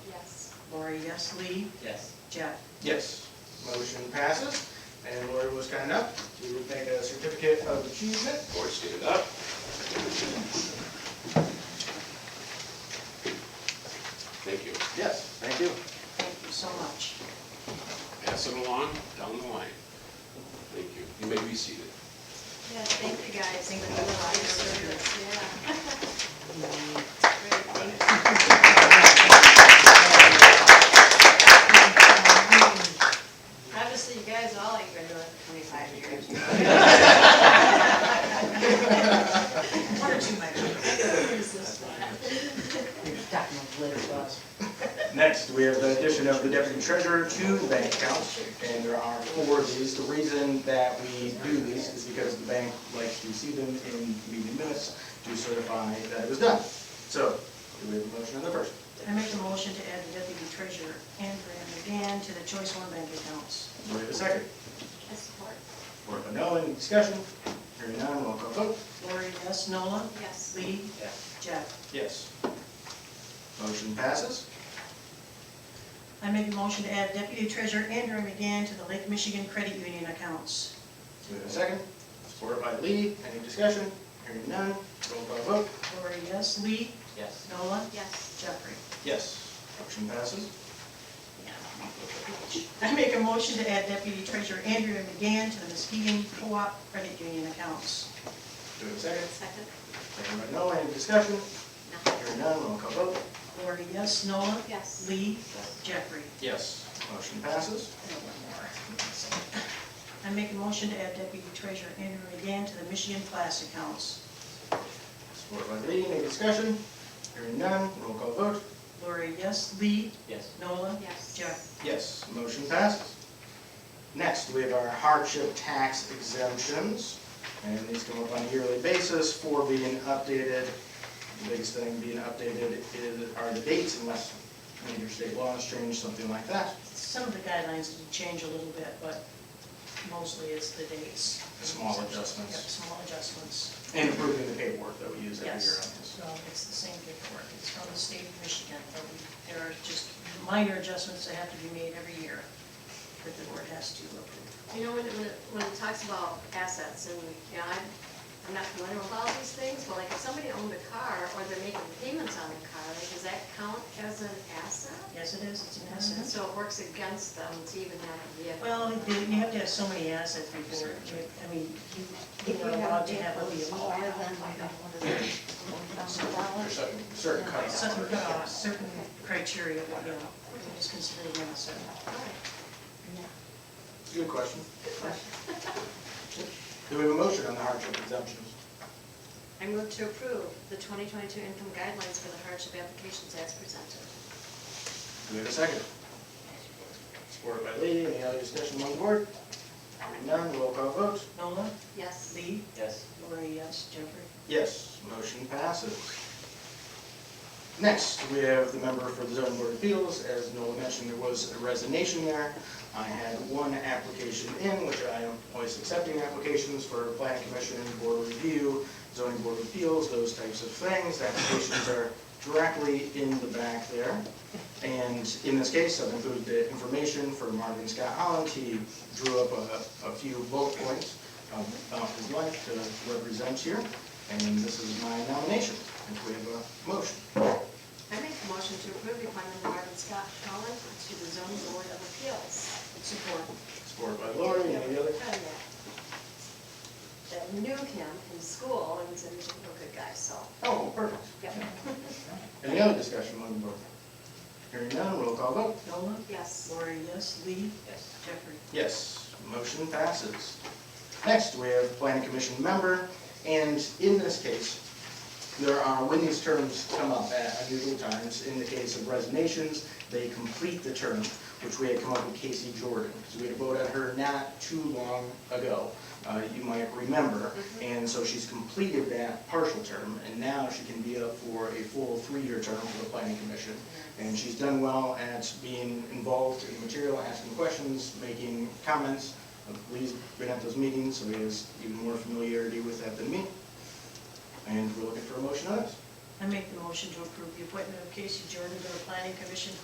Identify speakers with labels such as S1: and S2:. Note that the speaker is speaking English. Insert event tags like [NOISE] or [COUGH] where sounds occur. S1: Lori, yes. Lee?
S2: Yes.
S1: Jeff?
S3: Yes. Motion passes, and Lori was kind enough to make a certificate of achievement for student up.
S4: Thank you.
S3: Yes, thank you.
S1: Thank you so much.
S4: Pass it along down the line. Thank you. You may be seated.
S5: Yeah, thank you guys. Thank you for all your service. Yeah. Great, thank you. [LAUGHS] Obviously, you guys all ain't been doing it twenty-five years.
S1: One or two might be.
S5: Who's this one?
S3: Next, we have the addition of the deputy treasurer to the bank account, and there are four of these. The reason that we do these is because the bank likes to see them in meeting minutes to certify that it was done. So, do we have a motion on the first?
S1: I make a motion to add the deputy treasurer and Brandon McGann to the choice one bank accounts.
S3: Do we have a second?
S5: I support.
S3: Work on no, any discussion? Hearing none, roll call vote.
S1: Lori, yes. Nola?
S5: Yes.
S1: Lee?
S2: Yes.
S1: Jeff?
S3: Yes. Motion passes.
S1: I make a motion to add deputy treasurer Andrew McGann to the Lake Michigan Credit Union accounts.
S3: Do we have a second? Supported by Lee, any discussion? Hearing none, roll call vote.
S1: Lori, yes. Lee?
S2: Yes.
S1: Nola?
S5: Yes.
S1: Jeffrey?
S3: Yes. Motion passes.
S1: I make a motion to add deputy treasurer Andrew McGann to the Muskegon Co-op Credit Union accounts.
S3: Do we have a second?
S5: Second?
S3: Second by Noah, any discussion?
S5: No.
S3: Hearing none, roll call vote.
S1: Lori, yes. Nola?
S5: Yes.
S1: Lee? Jeffrey?
S3: Yes. Motion passes.
S1: I make a motion to add deputy treasurer Andrew McGann to the Michigan class accounts.
S3: Supported by Lee, any discussion? Hearing none, roll call vote.
S1: Lori, yes. Lee?
S2: Yes.
S1: Nola?
S5: Yes.
S1: Jeff?
S3: Yes. Motion passes. Next, we have our hardship tax exemptions, and these come up on a yearly basis for being updated. The biggest thing being updated is, are the dates unless major state law has changed, something like that.
S1: Some of the guidelines did change a little bit, but mostly it's the dates.
S3: Small
S1: Yep,
S3: adjustments,
S1: small adjustments.
S3: and approving the paperwork that we use every year on
S1: Yes.
S3: this.
S1: So it's the same paperwork. It's from the state of Michigan, but we, there are just minor adjustments that have to be made every year that the board has to approve.
S5: You know, when, it- when it- when it talks about assets, and, you know, I'm, I'm not familiar with all these things, but like, if somebody owned a car, or they're making payments on the car, like, does that count as an asset?
S1: Yes, it is. It's an asset.
S5: So it works against them to even have a vehicle.
S1: Well, you you have to have so many assets before, you- I mean, you- you're allowed to have a vehicle.
S3: There's certain, certain
S1: Certain,
S3: cutoffs.
S1: uh, certain criteria, but, you know, it's considered an asset.
S5: All right.
S3: Good question. Do we have a motion on the hardship exemptions?
S5: I move to approve the 2022 income guidelines for the hardship applications as presented.
S3: Do we have a second? Supported by Lee, any other discussion on the board? Hearing None, roll call vote.
S1: Nola,
S5: Yes.
S1: Lee,
S2: Yes.
S1: Lori, yes, Jeffrey?
S3: Yes, motion passes. Next, we have the member for the zoning board of appeals. As Nola mentioned, there was a resignation there. I had one application in, which I am always accepting applications for planning commission, board review, zoning board of appeals, those types of things. Applications are directly in the back there. And in this case, I've included the information for Marvin Scott Holland. He drew up a, a few bullet points um, about his life to represent here. And this is my nomination. If we have a motion,
S5: I make a motion to approve the appointment of Marvin Scott Holland to the zoning board of appeals.
S1: Support.
S3: supported by Lori, any
S5: Oh,
S3: other?
S5: yeah. That knew him in school and was a real good guy, so,
S3: Oh, perfect.
S5: yeah.
S3: Any other discussion on the board? Hearing none, roll call vote.
S1: Nola,
S5: Yes.
S1: Lori, yes, Lee,
S2: Yes.
S1: Jeffrey?
S3: Yes, motion passes. Next, we have planning commission member, and in this case, there are, when these terms come up at unusual times, in the case of resignations, they complete the term, which we had come up with Casey Jordan. So we had voted her not too long ago, uh, you might remember. And so she's completed that partial term, and now she can be up for a full three-year term for the planning commission. And she's done well at being involved in material, asking questions, making comments. Uh, Lee's been at those meetings, so he has even more familiarity with that than me. And we're looking for a motion on this.
S1: I make the motion to approve the appointment of Casey Jordan to the planning commission